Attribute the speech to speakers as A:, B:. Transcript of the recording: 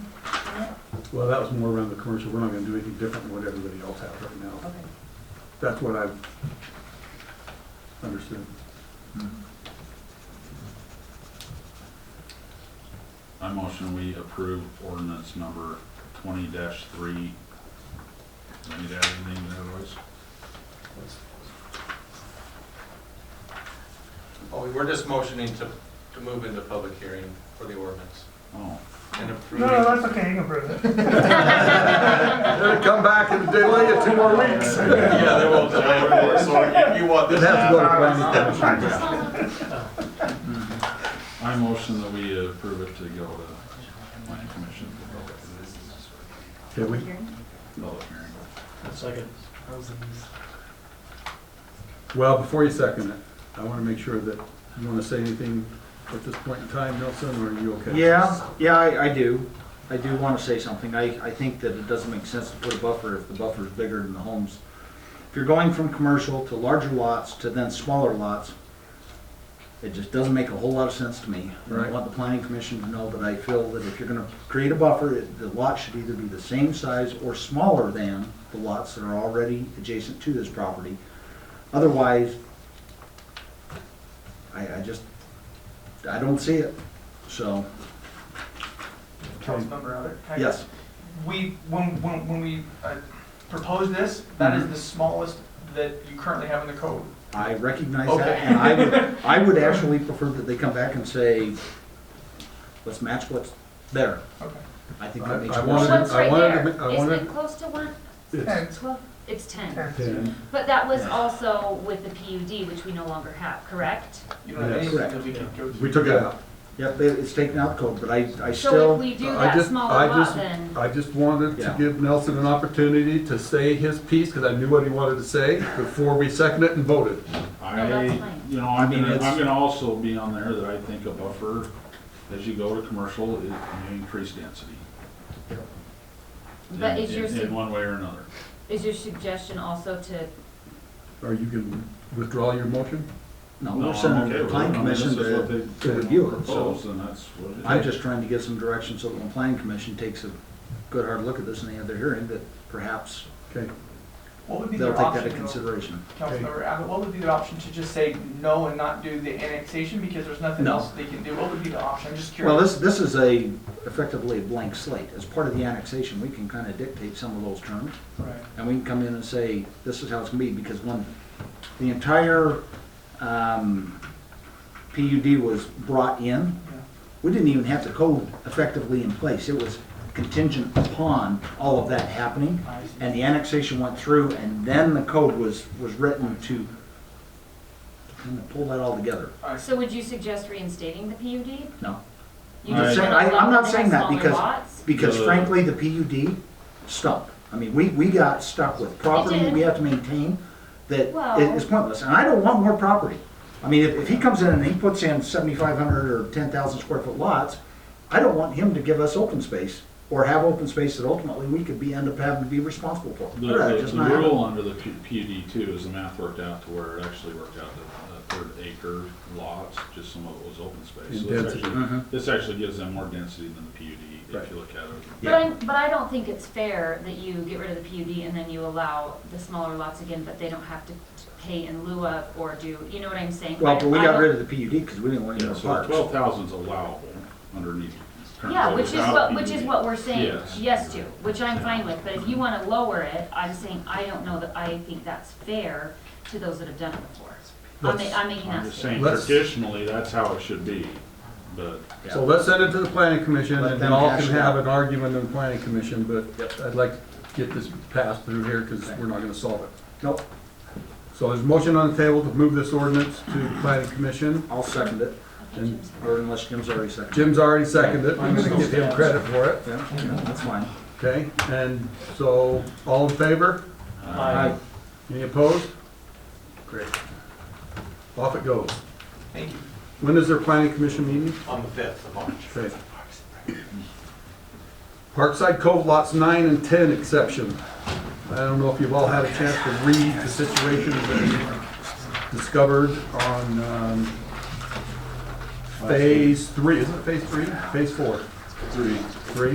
A: Well, that was more around the commercial, we're not gonna do anything different than what everybody else has right now.
B: Okay.
A: That's what I've understood.
C: I motion we approve ordinance number twenty three. Do I need to add anything to that, Royce?
D: Oh, we were just motioning to, to move into public hearing for the ordinance
C: Oh,
D: and
E: No, no,
D: approving.
E: that's okay, you can prove it.
A: It'll come back and delay it two more weeks.
D: Yeah, they won't delay it anymore, so if you want this.
A: It'd have to go to planning commission.
E: I
C: I motion that we approve it to go to planning commission for public,
A: Okay, we,
C: public hearing.
F: Second.
A: well, before you second it, I wanna make sure that, you wanna say anything at this point in time, Nelson, or are you okay?
F: Yeah, yeah, I, I do. I do want to say something. I, I think that it doesn't make sense to put a buffer if the buffer is bigger than the homes. If you're going from commercial to larger lots to then smaller lots, it just doesn't make a whole lot of sense to me. And I
A: Right.
F: want the planning commission to know that I feel that if you're gonna create a buffer, it- the lot should either be the same size or smaller than the lots that are already adjacent to this property. Otherwise, I, I just, I don't see it, so,
E: Councilmember Albert? can I-
F: yes.
E: We, when, when, when we uh, proposed this, that
F: Mm-hmm.
E: is the smallest that you currently have in the code.
F: I recognize that,
E: Okay.
F: and I would, I would actually prefer that they come back and say, let's match what's there.
E: Okay.
F: I think
A: I-
F: that makes
A: I
F: more
A: wanted-
F: sense.
G: What's
A: I
G: right
A: wanted to
G: there?
A: ma- I
G: Isn't
A: wanted-
G: it close to one,
A: It's
E: Ten.
G: twelve, it's ten?
E: Ten.
A: ten.
G: But that was also with the PUD, which we no longer have, correct?
E: You don't have
A: Yes.
E: anything that we can go
A: We
E: to.
A: took it out.
F: Yep, they- it's taken out code, but I, I
G: So if
F: still,
G: we do
A: I
G: that
A: just- I
G: smaller
A: just-
G: lot, then,
A: I just wanted to
F: Yeah.
A: give Nelson an opportunity to say his piece, because I knew what he wanted to say before we seconded it and voted.
C: I,
G: No, that's fine.
C: you know, I'm
F: mean,
C: gonna,
F: it's-
C: I'm gonna also be on there that I think a buffer, as you go to commercial, it- you increase density.
G: but
C: in-
G: is your,
C: in-
G: su-
C: In one way or another.
G: is your suggestion also to,
A: Or you can withdraw your motion?
F: no,
C: No,
F: we're
C: I'm
F: sending
C: Oh, okay
F: the
C: with it.
F: planning
C: I mean, this
F: commission
C: is what
F: to,
C: they
F: to review it, so.
C: Proposed, and that's what it
F: I'm
C: is.
F: just trying to give some direction, so when the planning commission takes a good hard look at this and they have their hearing, that perhaps
A: Okay,
E: What would be
F: they'll
E: their
F: take that into
E: option, though?
F: consideration.
E: Councilmember Abbott, what would be their option to just say no and not do the annexation because there's nothing
F: No.
E: else they can do? What would be the option? I'm just
F: Well,
E: curious.
F: this, this is a effectively a blank slate. As part of the annexation, we can kind of dictate some of those terms.
E: Right.
F: And we can come in and say, this is how it's gonna be, because when the entire, um, PUD was brought in,
E: Yeah.
F: we didn't even have the code effectively in place. It was contingent upon all of that happening.
E: I see.
F: And the annexation went through, and then the code was, was written to kind of pull that all together.
E: I see.
G: so would you suggest reinstating the PUD?
F: No,
G: You
C: I'm
G: just wanna
F: saying- Uh, I- I'm
G: let
F: not
G: them
F: saying
G: have
F: that
G: smaller
F: because-
G: lots?
F: because
C: The-
F: frankly, the PUD stuck. I mean, we, we got stuck with property that we
G: did.
F: have to maintain that
G: Well-
F: it is pointless, and I don't want more property. I mean, if, if he comes in and he puts in seventy-five hundred or ten thousand square foot lots, I don't want him to give us open space or have open space that ultimately we could be, end up having to be responsible for.
C: The,
F: That's
C: the-
F: just
C: the
F: not happening.
C: rule under the P- PUD too is the math worked out to where it actually worked out that a third acre lots, just some of it was open
A: And
C: space. So this
A: density.
C: actually,
F: Mhm.
C: this actually gives them more density than the PUD
A: Right.
C: if you look at it.
G: But I, but I don't think it's fair that you get rid of the PUD and then you allow the smaller lots again, but they don't have to pay in lieu of or do, you know what I'm saying?
F: Well,
G: I-
F: but we
G: I
F: got
G: don't-
F: rid of the PUD because we didn't want any
C: Yeah,
F: more
C: so
F: parks.
C: twelve thousand's allowable underneath. current
G: Yeah,
C: code
G: which is
C: without
G: what, which is
C: PUD.
G: what we're saying
C: Yes.
G: yes to, which I'm fine with, but if you wanna lower it, I'm saying, I don't know that, I think that's fair to those that have done it before. I'm, ma-
A: Let's-
G: I'm making
C: I'm
G: that
C: just saying
G: statement.
A: Let's-
C: traditionally, that's how it should be, but
F: Yeah.
A: so let's send it to the planning commission,
F: Let
A: and
F: them
A: all
F: hash
A: can
F: it
A: have
F: out.
A: an argument in the planning commission, but
F: Yep.
A: I'd like to get this passed through here, because we're not gonna solve it.
F: Nope,
A: So there's a motion on the table to move this ordinance to the planning commission,
F: I'll second it,
A: and
F: or unless Jim's already seconded. it.
A: Jim's already seconded it, I'm gonna give him credit for it,
F: Yeah, yeah, that's fine.
A: okay? And so, all in favor?
F: Aye.
A: Any opposed? Great. Off it goes.
E: Thank you.
A: When is their planning commission meeting?
D: On the fifth of March.
A: Okay. Parkside Cove lots nine and ten exception. I don't know if you've all had a chance to read the situation that we discovered on, um, phase three, is it phase three? Phase four? Three.